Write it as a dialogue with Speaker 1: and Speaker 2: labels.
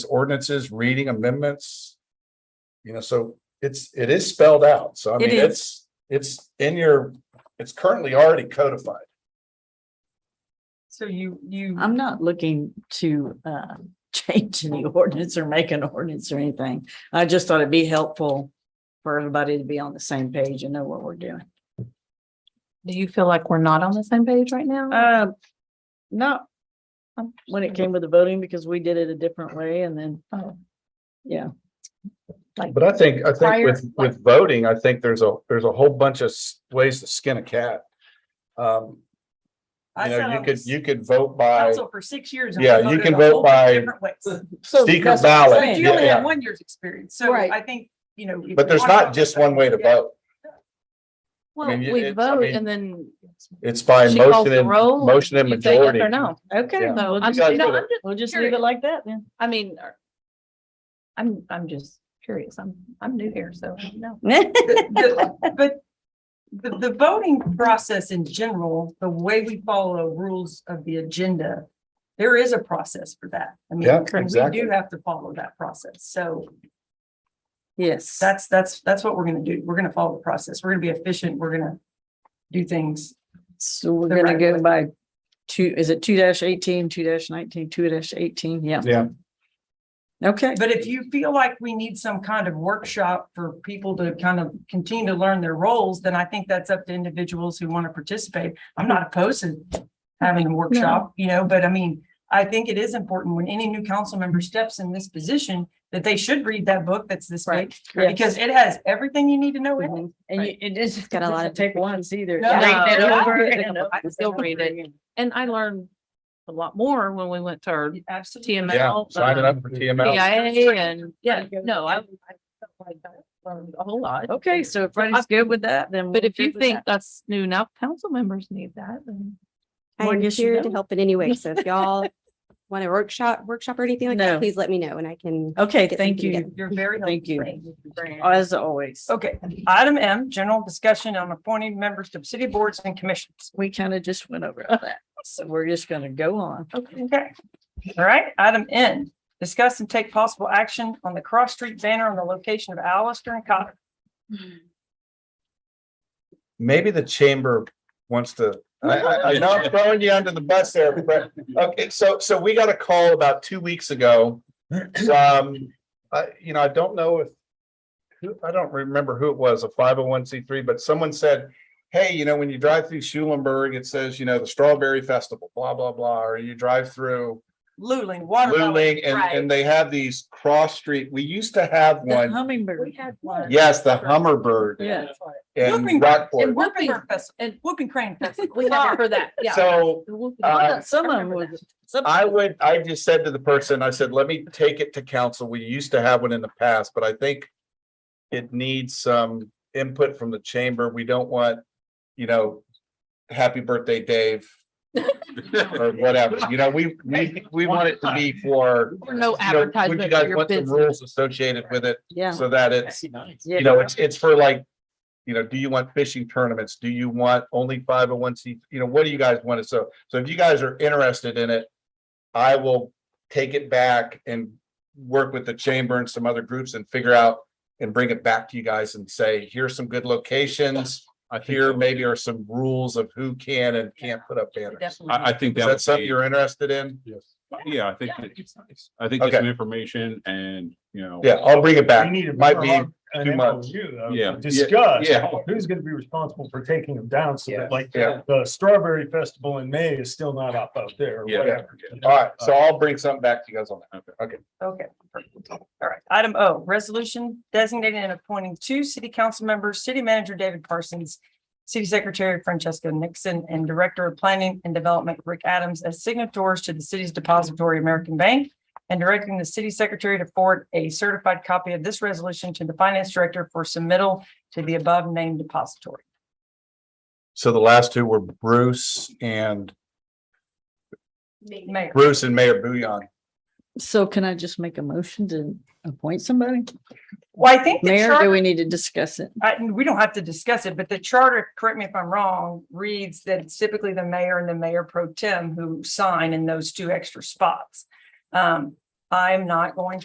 Speaker 1: ordinances, reading amendments. You know, so it's, it is spelled out. So I
Speaker 2: It
Speaker 1: mean,
Speaker 2: is.
Speaker 1: it's, it's in your, it's currently already codified.
Speaker 3: So you, you,
Speaker 2: I'm not looking to uh change any ordinance or make an ordinance or anything. I just thought it'd be helpful for everybody to be on the same page and know what we're doing.
Speaker 3: do you feel like we're not on the same page right now?
Speaker 2: Uh, not um, when it came with the voting because we did it a different way and then,
Speaker 3: Oh.
Speaker 2: yeah.
Speaker 1: But I think, I think
Speaker 3: Prior-
Speaker 1: with, with voting, I think there's a, there's a whole bunch of s- ways to skin a cat. Um, you know, you could, you could vote by
Speaker 3: for six years.
Speaker 1: and we Yeah, you voted can a vote whole bunch of by- different secret
Speaker 2: that's what I'm
Speaker 1: ballot.
Speaker 2: saying.
Speaker 1: Yeah, yeah.
Speaker 3: one year's experience,
Speaker 2: so Right. I
Speaker 3: think, you know.
Speaker 1: But there's not just one way to vote.
Speaker 3: Well,
Speaker 1: mean, you-
Speaker 3: we
Speaker 1: it's- I
Speaker 3: vote
Speaker 1: mean,
Speaker 3: and then.
Speaker 1: It's by
Speaker 3: she calls
Speaker 1: motion
Speaker 3: the
Speaker 1: and,
Speaker 3: roll. and
Speaker 1: motion and
Speaker 3: you say yes
Speaker 1: majority.
Speaker 3: Or no.
Speaker 2: Okay,
Speaker 1: Yeah.
Speaker 2: well, we'll
Speaker 3: I'm,
Speaker 2: just-
Speaker 1: guys
Speaker 3: you know,
Speaker 1: vote.
Speaker 3: I'm just,
Speaker 2: we'll just leave it
Speaker 3: curious.
Speaker 2: like that then.
Speaker 3: I mean. are- I'm, I'm just curious. I'm, I'm new here, so I don't know.
Speaker 4: The- the- But the, the voting process in general, the way we follow rules of the agenda, there is a process for that. I mean,
Speaker 1: Yeah,
Speaker 4: and we
Speaker 1: exactly.
Speaker 4: do have to follow that process. So
Speaker 2: Yes.
Speaker 4: that's, that's, that's what we're gonna do. We're gonna follow the process. We're gonna be efficient. We're gonna do things.
Speaker 2: So we're
Speaker 4: the
Speaker 2: gonna
Speaker 4: right
Speaker 2: go
Speaker 4: way.
Speaker 2: by two, is it two dash eighteen, two dash nineteen, two dash eighteen? Yeah.
Speaker 1: Yeah.
Speaker 2: Okay,
Speaker 4: But if you feel like we need some kind of workshop for people to kind of continue to learn their roles, then I think that's up to individuals who want to participate. I'm not opposed to having a workshop, you know, but I mean, I think it is important when any new council member steps in this position that they should read that book that's this big
Speaker 2: Right.
Speaker 4: because it has everything you need to know in it.
Speaker 2: Mhm. and you, it is.
Speaker 3: got a lot of
Speaker 2: Take once either.
Speaker 4: No,
Speaker 3: Read it
Speaker 2: Yeah.
Speaker 3: over
Speaker 2: Yeah.
Speaker 3: and over. I still read it. And I learned a lot more when we went to our
Speaker 4: Absolutely.
Speaker 3: TML.
Speaker 1: Yeah, signing
Speaker 3: um,
Speaker 1: up for TML.
Speaker 3: PIA and, yeah,
Speaker 2: Yeah.
Speaker 3: no, I. I felt like I Learned a whole lot.
Speaker 2: Okay, so if Freddie's good with that, then.
Speaker 3: But
Speaker 2: we're
Speaker 3: if you
Speaker 2: good with that.
Speaker 3: think that's new, now council members need that, then.
Speaker 2: Well, I
Speaker 5: I'm
Speaker 2: guess you
Speaker 5: here to
Speaker 2: don't.
Speaker 5: help in any way. So if y'all want a workshop, workshop or anything like
Speaker 2: No.
Speaker 5: that, please let me know and I can.
Speaker 2: Okay,
Speaker 5: get
Speaker 2: thank
Speaker 5: something
Speaker 2: you,
Speaker 5: together.
Speaker 4: You're very.
Speaker 2: Thank you.
Speaker 4: helpful.
Speaker 2: as always.
Speaker 4: Okay, item M, general discussion on appointing members to city boards and commissions.
Speaker 2: We kind of just went over that, so we're just gonna go on.
Speaker 4: Okay. Okay. All right, item N, discuss and take possible action on the cross street banner on the location of Alistair and Cotter.
Speaker 1: Maybe the chamber wants to, I, I, I know I'm throwing you under the bus there, Brett. Okay, so, so we got a call about two weeks ago. Um, I, you know, I don't know if, who, I don't remember who it was, a five oh one C three, but someone said, hey, you know, when you drive through Schulenburg, it says, you know, the Strawberry Festival, blah, blah, blah, or you drive through
Speaker 4: Luling, Watermelon.
Speaker 1: Luling, and, and they have these cross street. We used to have
Speaker 2: The
Speaker 1: one.
Speaker 2: hummingbird.
Speaker 4: had one.
Speaker 1: Yes, the Hummerbird.
Speaker 2: Yeah.
Speaker 1: in
Speaker 4: Whooping-
Speaker 1: Rockport.
Speaker 4: Whooping
Speaker 3: Whooping-
Speaker 4: Festival,
Speaker 3: and-
Speaker 4: Whooping Crane Festival.
Speaker 3: We have it for that, yeah.
Speaker 1: So Uh,
Speaker 2: Some of them
Speaker 3: remember
Speaker 2: was. some-
Speaker 1: I would, I just said to the person, I said, let me take it to council. We used to have one in the past, but I think it needs some input from the chamber. We don't want, you know, happy birthday, Dave. Or whatever, you know, we, we, we want it to be for. you
Speaker 3: Or no
Speaker 1: know, would
Speaker 3: advertisement
Speaker 1: You
Speaker 3: for
Speaker 1: guys
Speaker 3: your
Speaker 1: want the
Speaker 3: business.
Speaker 1: rules associated with it
Speaker 2: Yeah.
Speaker 1: so that it's,
Speaker 2: yeah.
Speaker 1: you know, it's, it's for like, you know, do you want fishing tournaments? Do you want only five oh one C? You know, what do you guys want? So, so if you guys are interested in it, I will take it back and work with the chamber and some other groups and figure out and bring it back to you guys and say, here's some good locations. Here maybe are some rules of who can and can't put up banners. Is
Speaker 6: I, I think that
Speaker 1: that
Speaker 6: would
Speaker 1: something
Speaker 6: be,
Speaker 1: you're interested in?
Speaker 6: yeah, I think, that- I think there's
Speaker 1: Okay.
Speaker 6: some information and, you know.
Speaker 1: Yeah, I'll bring it
Speaker 7: We
Speaker 1: back.
Speaker 7: need to
Speaker 1: Might be
Speaker 7: have an
Speaker 1: too much.
Speaker 7: MOU, though,
Speaker 6: Yeah.
Speaker 7: to Discuss
Speaker 1: Yeah.
Speaker 7: who's gonna be responsible for taking them down, so that like
Speaker 1: Yeah.
Speaker 7: the strawberry festival in May is still not up up there. or
Speaker 6: Yeah.
Speaker 7: whatever.
Speaker 1: All right, so I'll bring something back to you guys on that.
Speaker 4: Okay, perfect. all right. Item O, resolution designating and appointing two city council members, city manager David Parsons, city secretary Francesca Nixon, and director of planning and development Rick Adams as signatories to the city's depository American Bank, and directing the city secretary to forward a certified copy of this resolution to the finance director for submittal to the above named depository.
Speaker 1: So the last two were Bruce and
Speaker 4: Mayor.
Speaker 1: Bruce and Mayor Bouillon.
Speaker 2: So can I just make a motion to appoint somebody?
Speaker 4: Well, I think the
Speaker 2: Mayor,
Speaker 4: charter-
Speaker 2: do we need to discuss it?
Speaker 4: I, we don't have to discuss it, but the charter, correct me if I'm wrong, reads that it's typically the mayor and the mayor pro tem who sign in those two extra spots. Um, I'm not going